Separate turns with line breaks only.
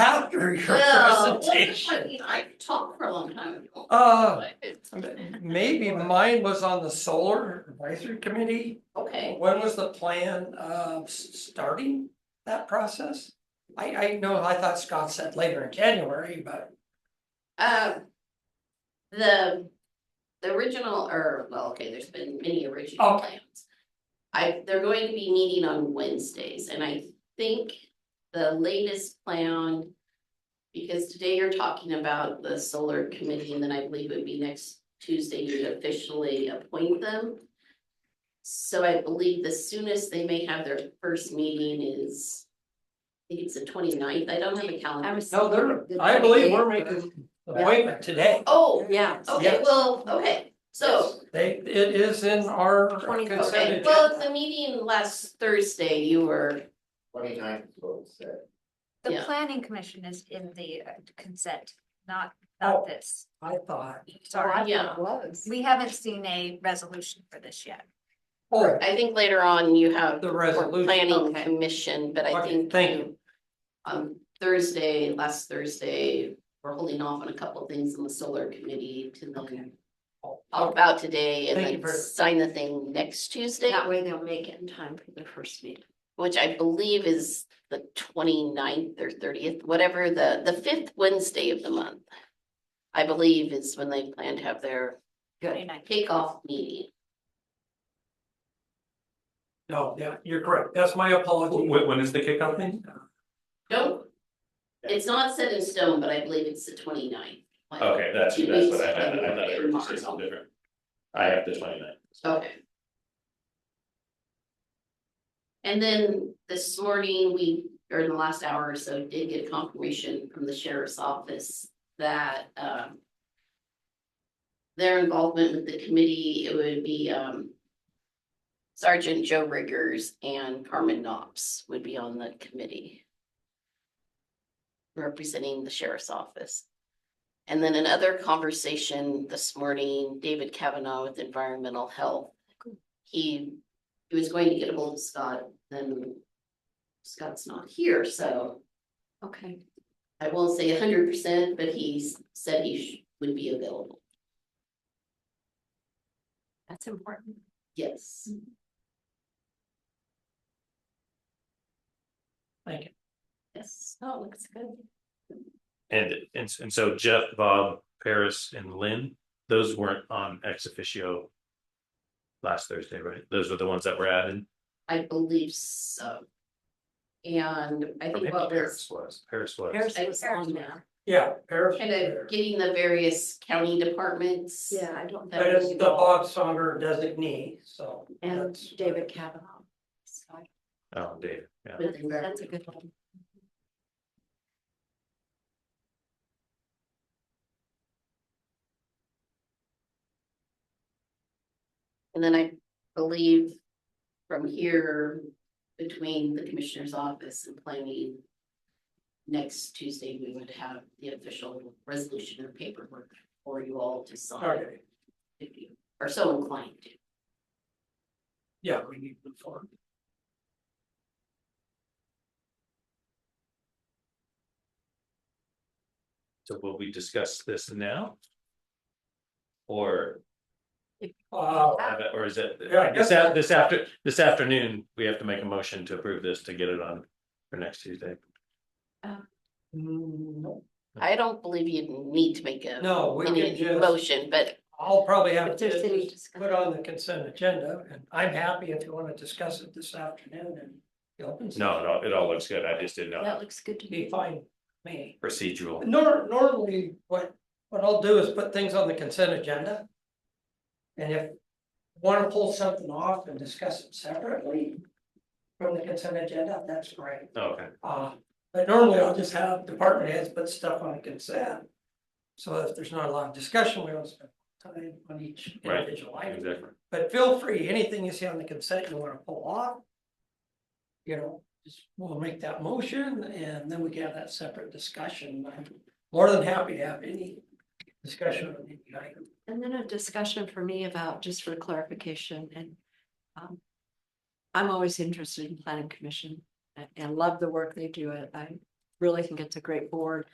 prepare your
Well,
presentation.
I mean, I could talk for a long time. if you want,
Uh,
but it's-
maybe mine was on the solar advisory committee.
Okay,
When was the plan of s- starting that process? I, I know, I thought Scott said later in January, but
um. The, the original, or, well, okay, there's been many original
Oh.
plans. I, they're going to be meeting on Wednesdays, and I think the latest plan. Because today you're talking about the solar committee, and then I believe it would be next Tuesday you'd officially appoint them. So I believe the soonest they may have their first meeting is. I think it's the 29th. I don't have a calendar.
I was.
no, they're,
The
I believe
28th
we're making the appointment today.
Oh,
Yeah.
Okay,
Yes.
well, okay, so,
They, it is in our
Twenty-
consent
okay,
agenda.
well, at the meeting last Thursday, you were,
Twenty ninth is what it said.
The
Yeah.
planning commission is in the uh, consent, not,
Oh.
not this.
I thought,
Sorry,
yeah.
we haven't seen a resolution for this yet.
oh,
I think later on you have
the
for
resolution,
planning
Okay.
commission, but I
Okay,
think
thank
you- On Thursday, last Thursday, we're holding off on a couple of things in the solar committee to then. All
Oh,
about today and
Thank you
then
for-
sign the thing next Tuesday,
way they'll make it in time for their first meeting.
which I believe is the 29th or thirtieth, whatever, the, the fifth Wednesday of the month. I believe is when they plan to have their kickoff meeting.
no, yeah, you're correct, that's my apology.
When, when is the kickoff thing?
Don't. It's not set in stone, but I believe it's the 29th. like,
Okay, that's,
two
that's
weeks
what I, I,
ago
I thought you were
in
just saying
March.
something different. I have the twenty ninth.
Okay. And then this morning, we, or in the last hour or so, did get confirmation from the sheriff's office that, um. Their involvement with the committee, it would be, um. Sergeant Joe Riggers and Carmen Knox would be on the committee. Representing the sheriff's office. And then another conversation this morning, David Kavanaugh with Environmental Health. He, he was going to get a hold of Scott, then Scott's not here, so
Okay.
I won't say hundred percent, but he's said he sh- would be available.
That's important.
Yes.
Thank you.
Yes. Oh, looks good.
And, and, and so Jeff, Bob, Paris and Lynn, those weren't on ex officio. Last Thursday, right? Those were the ones that were added.
I believe so. And I
Or
think
maybe
what was,
Paris was, Paris was.
I was on there,
Yeah, Paris.
kind of getting the various county departments.
I don't.
But it's the Bob Saunder designee, so. that's-
Kavanaugh.
Oh, David, yeah.
With environmental.
That's a good one.
And then I believe from here, between the commissioner's office and planning. Next Tuesday, we would have the official resolution or paperwork for you all to sign
Okay,
if you are so inclined to.
yeah, we need to move forward.
So will we discuss this now? Or
Uh,
have it, or is it,
Yeah, I guess-
this, a- this after, this afternoon, we have to make a motion to approve this to get it on for next Tuesday?
no,
I don't believe you need to make a
no, we can
any
just,
motion, but
I'll probably have
If there's any
to
discussion.
put on the consent agenda, and I'm happy if you want to discuss it this afternoon and. the open session.
No, no, it all looks good. I just didn't know
That
how
looks good to
Be
me.
fine, me.
procedural.
Nor, normally, what, what I'll do is put things on the consent agenda. And if want to pull something off and discuss it separately from the consent agenda, that's great.
Okay,
Uh, but normally I'll just have department heads put stuff on consent. So if there's not a lot of discussion, we don't spend time on each
Right,
individual item.
exactly.
But feel free, anything you see on the consent you wanna pull off. You know, just we'll make that motion and then we can have that separate discussion. I'm more than happy to have any discussion on any item.
And then a discussion for me about, just for clarification and. um, I'm always interested in planning commission and- and love the work they do. I- I really think it's a great board.